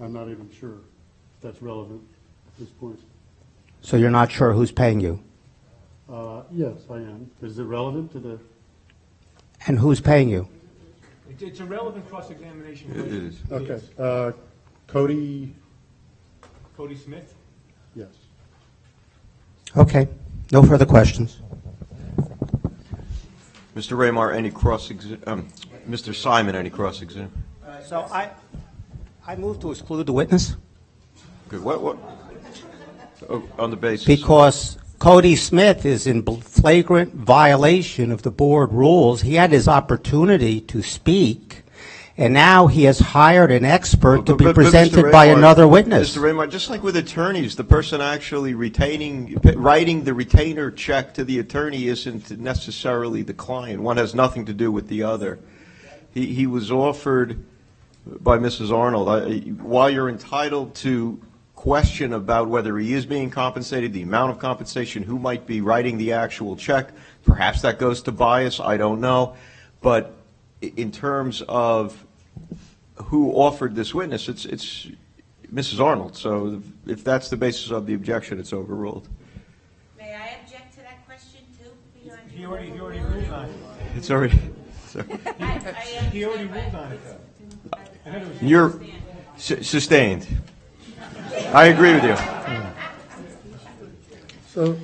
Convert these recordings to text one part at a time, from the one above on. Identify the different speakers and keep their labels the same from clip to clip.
Speaker 1: I'm not even sure if that's relevant at this point.
Speaker 2: So you're not sure who's paying you?
Speaker 1: Uh, Yes, I am. Is it relevant to the,
Speaker 2: And who's paying you?
Speaker 3: It- It's a relevant cross-examination.
Speaker 4: It is.
Speaker 1: okay, uh, Cody,
Speaker 3: Cody Smith?
Speaker 1: yes.
Speaker 2: Okay, no further questions.
Speaker 4: Mr. Raymar, any cross, um, Mr. Simon, any cross-exam?
Speaker 2: So I, I move to exclude the witness
Speaker 4: Good, what, what? Oh, On the basis,
Speaker 2: because Cody Smith is in bl- flagrant violation of the board rules. He had his opportunity to speak, and now he has hired an expert to
Speaker 4: But-
Speaker 2: be
Speaker 4: but- but Mr.
Speaker 2: presented by
Speaker 4: Raymar-
Speaker 2: another witness.
Speaker 4: Mr. Raymar, just like with attorneys, the person actually retaining, writing the retainer check to the attorney isn't necessarily the client. One has nothing to do with the other. He, he was offered by Mrs. Arnold, I- while you're entitled to question about whether he is being compensated, the amount of compensation, who might be writing the actual check, perhaps that goes to bias, I don't know. But i- in terms of who offered this witness, it's, it's Mrs. Arnold, so if that's the basis of the objection, it's overruled.
Speaker 5: May I object to that question too? Beyond
Speaker 3: He
Speaker 5: your
Speaker 3: already, he already
Speaker 5: overruling?
Speaker 3: ruled on it.
Speaker 4: It's already,
Speaker 5: I- I understand,
Speaker 3: He already ruled
Speaker 5: but
Speaker 3: on it, though. I know it was-
Speaker 4: you're su- sustained. I agree with you.
Speaker 1: So,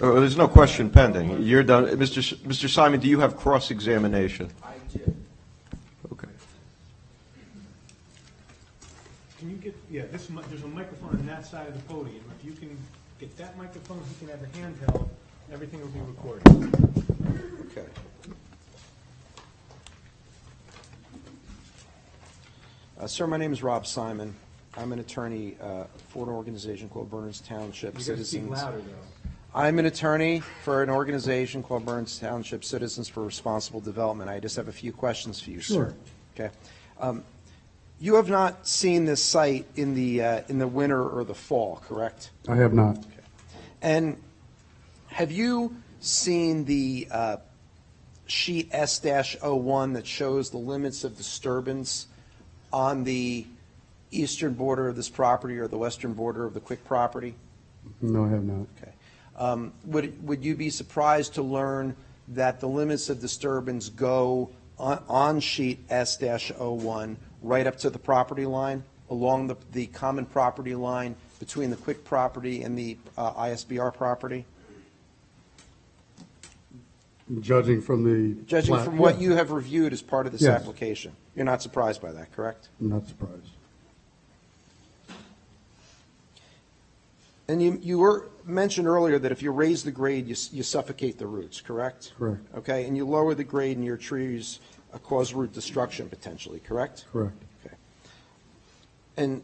Speaker 4: Uh, There's no question pending. You're done. Mr. S- Mr. Simon, do you have cross-examination? I do. Okay.
Speaker 3: Can you get, yeah, this, mi- there's a microphone on that side of the podium. If you can get that microphone, he can have a handheld, everything will be recorded.
Speaker 4: Okay.
Speaker 6: Uh, Sir, my name is Rob Simon. I'm an attorney uh, for an organization called Burns Township
Speaker 3: You gotta speak
Speaker 6: Citizens.
Speaker 3: louder, though.
Speaker 6: I'm an attorney for an organization called Burns Township Citizens for Responsible Development. I just have a few questions for you, sir. Okay. Um, You have not seen this site in the, uh, in the winter or the fall, correct?
Speaker 1: I have not.
Speaker 6: And have you seen the uh, sheet S-01 that shows the limits of disturbance on the eastern border of this property or the western border of the Quick property?
Speaker 1: No, I have not.
Speaker 6: Okay. Um, Would, would you be surprised to learn that the limits of disturbance go on, on sheet S-01 right up to the property line, along the, the common property line between the Quick property and the uh, ISBR property?
Speaker 1: Judging from the.
Speaker 6: Judging
Speaker 1: plat-
Speaker 6: from what
Speaker 1: yes,
Speaker 6: you have reviewed as part of this
Speaker 1: Yes.
Speaker 6: application, you're not surprised by that, correct?
Speaker 1: I'm not surprised.
Speaker 6: And you, you were, mentioned earlier that if you raise the grade, you s- you suffocate the roots, correct?
Speaker 1: Correct.
Speaker 6: Okay, and you lower the grade and your trees uh, cause root destruction potentially, correct?
Speaker 1: Correct.
Speaker 6: Okay. And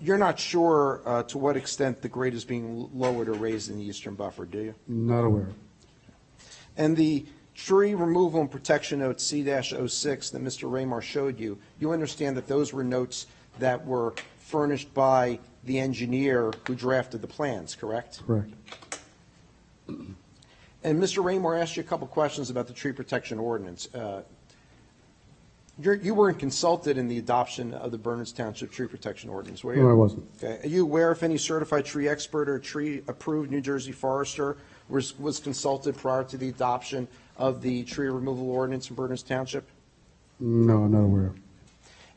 Speaker 6: you're not sure uh, to what extent the grade is being l- lowered or raised in the eastern buffer, do you?
Speaker 1: Not aware.
Speaker 6: And the tree removal and protection note C-06 that Mr. Raymar showed you, you understand that those were notes that were furnished by the engineer who drafted the plans, correct?
Speaker 1: Correct.
Speaker 6: And Mr. Raymore asked you a couple questions about the tree protection ordinance. Uh, you're- You weren't consulted in the adoption of the Berners Township Tree Protection Ordinance, were you?
Speaker 1: No, I wasn't.
Speaker 6: Okay. Are you aware if any certified tree expert or tree-approved New Jersey forester was was consulted prior to the adoption of the tree removal ordinance in Berners Township?
Speaker 1: No, I'm not aware.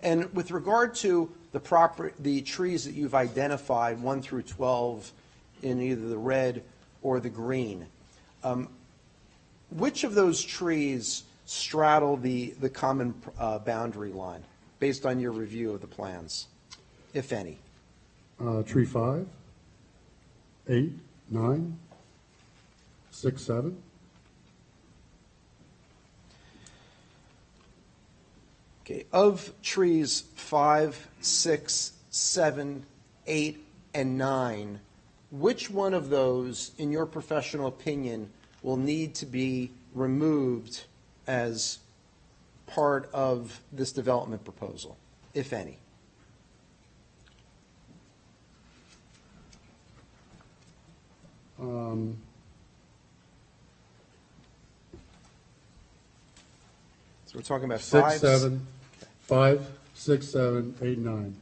Speaker 6: And with regard to the proper, the trees that you've identified, one through 12, in either the red or the green, um, which of those trees straddle the, the common uh, boundary line, based on your review of the plans, if any?
Speaker 1: Uh, Tree five, eight, nine, six, seven.
Speaker 6: Okay, of trees five, six, seven, eight, and nine, which one of those, in your professional opinion, will need to be removed as part of this development proposal, if any?
Speaker 1: Um,
Speaker 6: So we're talking about
Speaker 1: Six,
Speaker 6: five.
Speaker 1: seven, five, six, seven, eight, nine.